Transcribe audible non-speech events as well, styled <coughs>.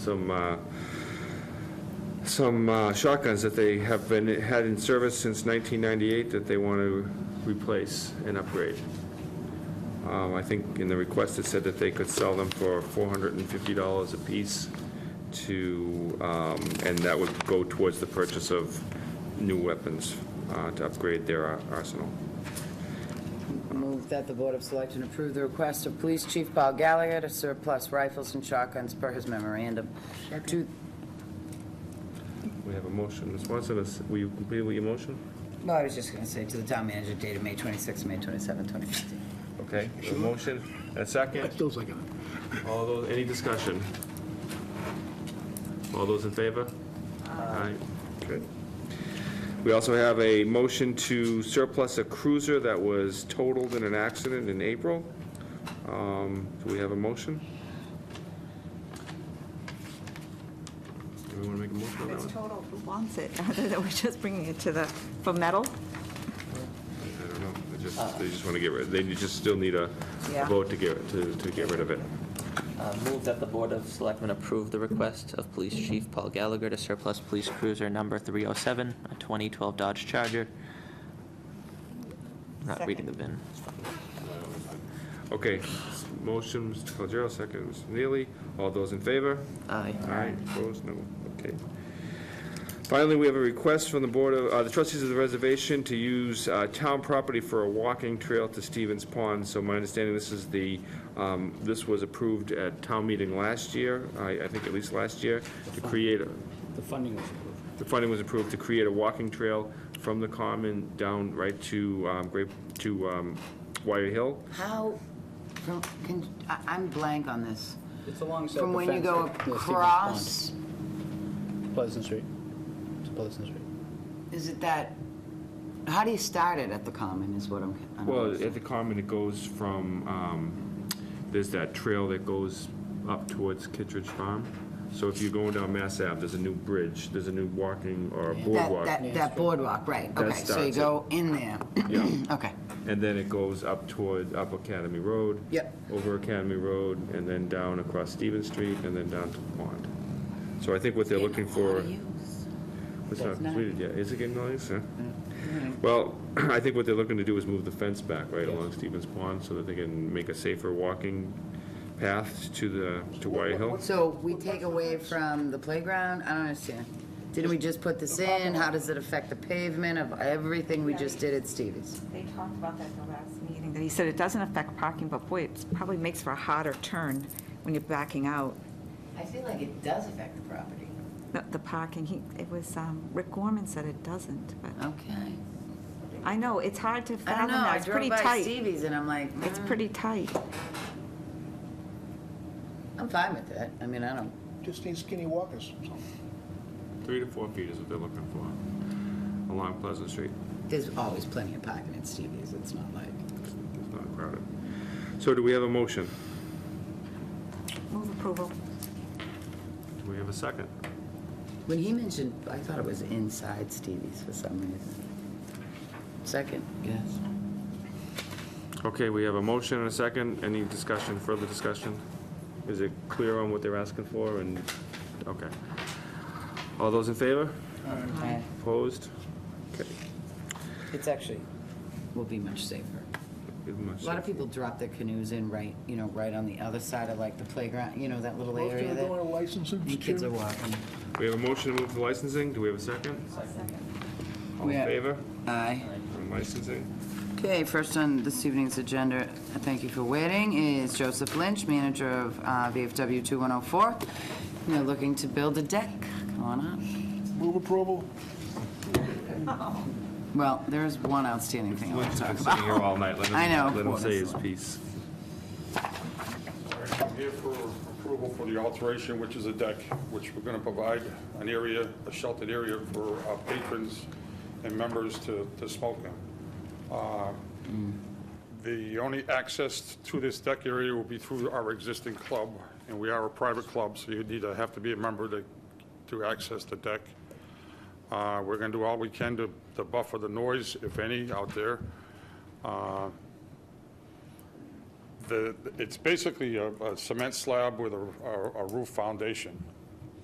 some, uh, some uh, shotguns that they have been, had in service since 1998 that they want to replace and upgrade. Um, I think in the request, it said that they could sell them for $450 apiece to, um, and that would go towards the purchase of new weapons uh, to upgrade their ar- arsenal. Move that the Board of Selectmen approve the request of Police Chief Paul Gallagher to surplus rifles and shotguns per his memorandum. To- We have a motion. Ms. Swanson, is- will you complete your motion? Well, I was just going to say to the town manager dated May 26, May 27, 2015. Okay, a motion, a second? Still second it. All those, any discussion? All those in favor? Aye. Good. We also have a motion to surplus a cruiser that was totaled in an accident in April. Um, Do we have a motion? Everyone make a motion on that It's one? total, who wants it, <laughs> other than we're just bringing it to the, for metal? I don't know, they just, they just want to get rid, they just still need a a Uh. Yeah. vote to get, to to get rid of it. Uh, Move that the Board of Selectmen approve the request of Police Chief Paul Gallagher to surplus Police Cruiser Number 307, a 2012 Dodge Charger. Not reading the VIN. Okay, motion, Mr. Calgero, second, Mr. Neely. All those in favor? Aye. Aye, opposed, no, okay. Finally, we have a request from the Board of, uh, the trustees of the reservation to use uh, town property for a walking trail to Stevens Pond. So my understanding, this is the, um, this was approved at town meeting last year, I I think at least last year, to create, a- The funding was approved. the funding was approved to create a walking trail from the common down right to um, Grape, to um, Wire Hill. How, from- can, I- I'm blank on this. It's alongside From the when you fence go at- near Stevens Pond. across, Pleasant Street. It's Pleasant Street. is it that, how do you start it at the common is what I'm. I don't Well, understand. at the common, it goes from, um, there's that trail that goes up towards Kittredge Farm. So if you're going down Mass Ave, there's a new bridge, there's a new walking or That, boardwalk. that, that boardwalk, right, That okay, so you starts it. go in there, <coughs> Yeah. okay. And then it goes up toward, up Academy Road. Yep. Over Academy Road, and then down across Stevens Street, and then down to the pond. So I think what they're looking for. It's not That's not- Mm, completed yet. Is it getting all this? Well, <clears throat> I think what they're looking to do is move the fence back right along Stevens Pond so that they can make a safer walking path to the, to White Hill. So we take away from the playground? I don't understand. Didn't we just put this in? How does it affect the pavement of everything we just did at Stevie's? They talked about that at the last meeting, that he said it doesn't affect parking, but boy, it probably makes for a harder turn when you're backing out. I feel like it does affect the property. The, the parking, he, it was, um, Rick Gorman said it doesn't, but Okay. I know, it's hard to I don't fathom know, that, I it's pretty drove by tight. Stevie's and I'm like, It's mm, pretty tight. I'm fine with that. I mean, I don't, Just need skinny walkers. Three to four feet is what they're looking for along Pleasant Street. there's always plenty of parking at Stevie's, it's not like. It's not crowded. So do we have a motion? Move approval. Do we have a second? When he mentioned, I thought it was inside Stevie's for some reason. Second, yes. Okay, we have a motion and a second. Any discussion, further discussion? Is it clear on what they're asking for and, okay. All those in favor? Okay. Opposed? Okay. It's actually, will be much safer. Give them A lot of people drop their canoes in right, you know, right on the other side of like the playground, you know, that little Most area of them that are licensed. the kids are walking. We have a motion to move to licensing. Do we have a second? All We in have- favor Aye. on licensing? Okay, first on this evening's agenda, uh, thank you for waiting, is Joseph Lynch, manager of uh, VFW 2104. you know, looking to build a deck. Come on up. Move approval. Well, there's one outstanding thing I want to talk about. sitting here all night. Let him- <laughs> I know. Let him say his piece. I'm here for approval for the alteration, which is a deck, which we're going to provide an area, a sheltered area for our patrons and members to to smoke in. Uh, The only access to this deck area will be through our existing club, and we are a private club, so you need to have to be a member to to access the deck. Uh, We're going to do all we can to to buffer the noise, if any, out there. Uh, the, it's basically a a cement slab with a- a a roof foundation.